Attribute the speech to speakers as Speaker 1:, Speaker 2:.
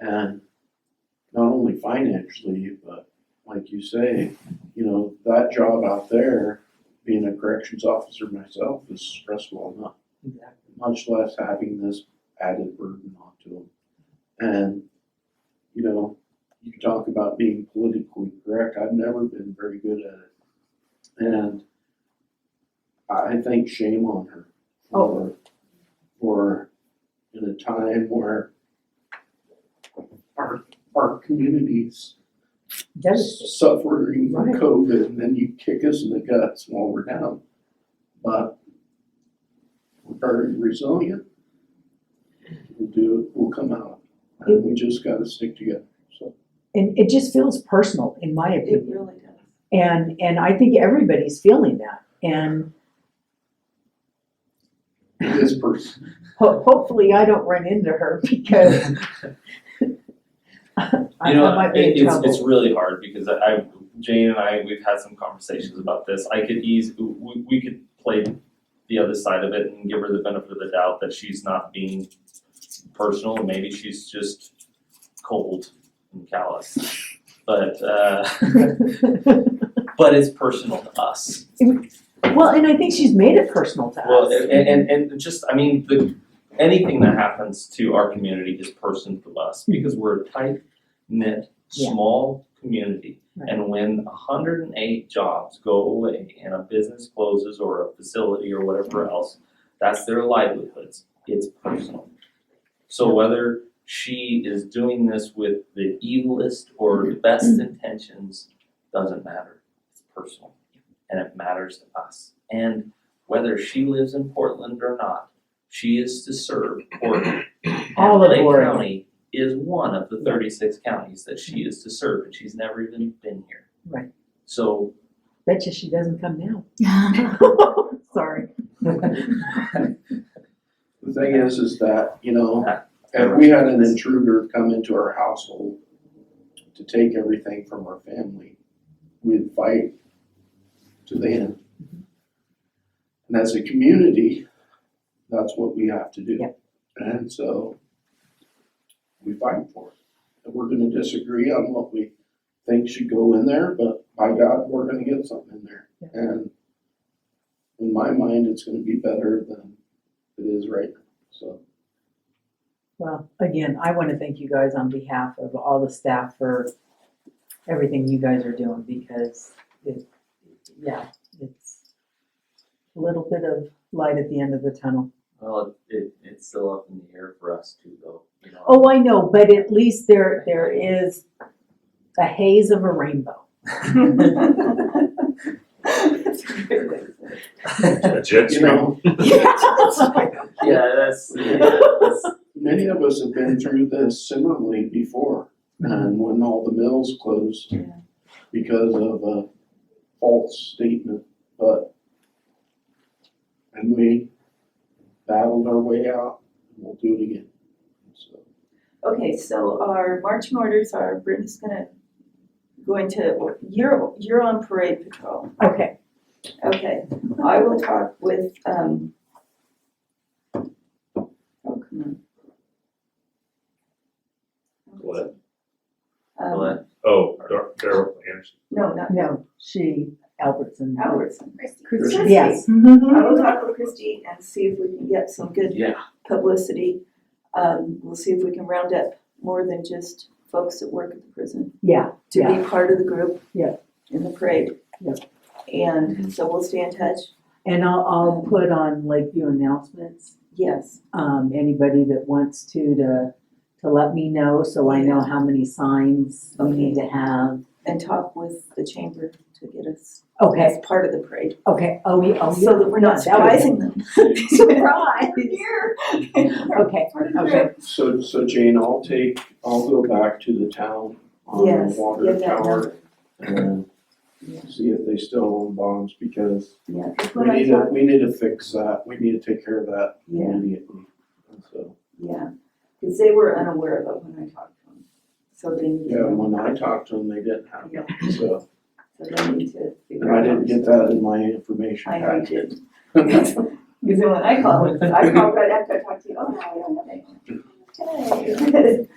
Speaker 1: And not only financially, but like you say, you know, that job out there, being a corrections officer myself is stressful enough,
Speaker 2: Exactly.
Speaker 1: much less having this added burden onto them. And, you know, you talk about being politically correct, I've never been very good at it. And I think shame on her. for- For, in a time where our, our communities
Speaker 2: Does,
Speaker 1: suffering from
Speaker 2: Right.
Speaker 1: COVID, and then you kick us in the guts while we're down. But we're very resilient. We'll do, it. we'll come out, and we just gotta stick together, so.
Speaker 2: and it just feels personal, in my
Speaker 3: It
Speaker 2: opinion,
Speaker 3: really does.
Speaker 2: and, and I think everybody's feeling that, and
Speaker 1: This person,
Speaker 2: ho- hopefully I don't run into her because I I
Speaker 4: You know,
Speaker 2: might
Speaker 4: it-
Speaker 2: be in
Speaker 4: it's, it's
Speaker 2: trouble.
Speaker 4: really hard because I, I, Jane and I, we've had some conversations about this. I could ease, we, we could play the other side of it and give her the benefit of the doubt that she's not being personal and maybe she's just cold and callous. But, uh, but it's personal to us.
Speaker 2: Well, and I think she's made it personal to us.
Speaker 4: Well, and, and, and just, I mean, the, anything that happens to our community is personal to us because we're a tight knit,
Speaker 2: Hmm. Yeah.
Speaker 4: small community. And when hundred and eight jobs go away and a business closes or a facility or
Speaker 2: Hmm.
Speaker 4: whatever else, that's their livelihoods. It's personal. So whether she is doing this with the evilest or the best
Speaker 2: Mm-hmm.
Speaker 4: intentions, doesn't matter. It's personal. And it matters to us. And whether she lives in Portland or not, she is to serve Portland.
Speaker 2: All of
Speaker 4: And Lake
Speaker 2: Oregon.
Speaker 4: County is one of the thirty-six counties that she is to serve, and she's never even been here.
Speaker 2: Right.
Speaker 4: So,
Speaker 2: Bet you she doesn't come now. Sorry.
Speaker 1: the thing is, is that, you know, if we had an intruder come into our household to take everything from our family, we'd fight to the end. And as a community, that's what we have to do.
Speaker 2: Yep.
Speaker 1: And so we fight for it. And we're gonna disagree on what we think should go in there, but by God, we're gonna get something in there.
Speaker 2: Yeah.
Speaker 1: And in my mind, it's gonna be better than it is right now, so.
Speaker 2: Well, again, I want to thank you guys on behalf of all the staff for everything you guys are doing because it, yeah, it's a little bit of light at the end of the tunnel.
Speaker 4: well, it, it's still up in the air for us too, though, you know.
Speaker 2: Oh, I know, but at least there, there is a haze of a rainbow.
Speaker 3: It's a good way to say it.
Speaker 5: A jet
Speaker 1: You
Speaker 5: stream.
Speaker 1: know,
Speaker 4: Yeah, that's, yeah, that's,
Speaker 1: many of us have been through this similarly before, and when all the mills closed
Speaker 3: Mm-hmm. Yeah.
Speaker 1: because of a false statement, but and we battled our way out, and we'll do it again. So,
Speaker 3: Okay, so our marching orders are, Brittany's gonna go into, you're, you're on parade patrol.
Speaker 2: Okay,
Speaker 3: Okay, I will talk with, um, oh, come on.
Speaker 5: What?
Speaker 3: Um,
Speaker 4: but,
Speaker 5: Oh, Dar- Daryl Anderson.
Speaker 3: No, not
Speaker 2: no, she, Albertson.
Speaker 3: Albertson.
Speaker 2: Christie,
Speaker 3: Christie.
Speaker 2: Yes. Mm-hmm.
Speaker 3: Mm-hmm. I will talk with Christie and see if we can get some good
Speaker 4: yeah,
Speaker 3: publicity. Um, we'll see if we can round up more than just folks that work at the prison
Speaker 2: Yeah,
Speaker 3: to
Speaker 2: Yeah.
Speaker 3: be part of the group.
Speaker 2: Yeah.
Speaker 3: In the parade.
Speaker 2: Yeah.
Speaker 1: Mm-hmm.
Speaker 3: And so we'll stay in touch.
Speaker 2: and I'll, I'll put on Lakeview announcements
Speaker 3: Yes,
Speaker 2: um, anybody that wants to, to, to let me know, so I know how many signs we need to have.
Speaker 3: and talk with the chamber to get us
Speaker 2: Okay,
Speaker 3: as part of the parade.
Speaker 2: okay, oh, yeah, oh, yeah.
Speaker 3: So that we're not
Speaker 2: That would-
Speaker 3: surprising them.
Speaker 2: Surprise.
Speaker 3: Here.
Speaker 2: Okay, okay,
Speaker 1: so, so Jane, I'll take, I'll go back to the town on the
Speaker 3: Yes,
Speaker 1: water
Speaker 3: give that
Speaker 1: tower
Speaker 3: number.
Speaker 1: and
Speaker 3: Yeah.
Speaker 1: see if they still own bonds, because
Speaker 3: Yeah, 'cause
Speaker 1: we
Speaker 3: when I
Speaker 1: need to,
Speaker 3: talk,
Speaker 1: we need to fix that, we need to take care of that
Speaker 3: yeah,
Speaker 1: immediately, and so.
Speaker 3: yeah, because they were unaware of it when I talked to them. So they need to.
Speaker 1: Yeah, when I talked to them, they didn't have
Speaker 3: Yeah.
Speaker 1: it, so,
Speaker 3: So they need to
Speaker 1: and
Speaker 3: figure out.
Speaker 1: I didn't get that in my information
Speaker 3: I know you
Speaker 1: packet.
Speaker 3: did. Because then when I called, I called right after I talked to you, oh, no, I don't have anything. Okay.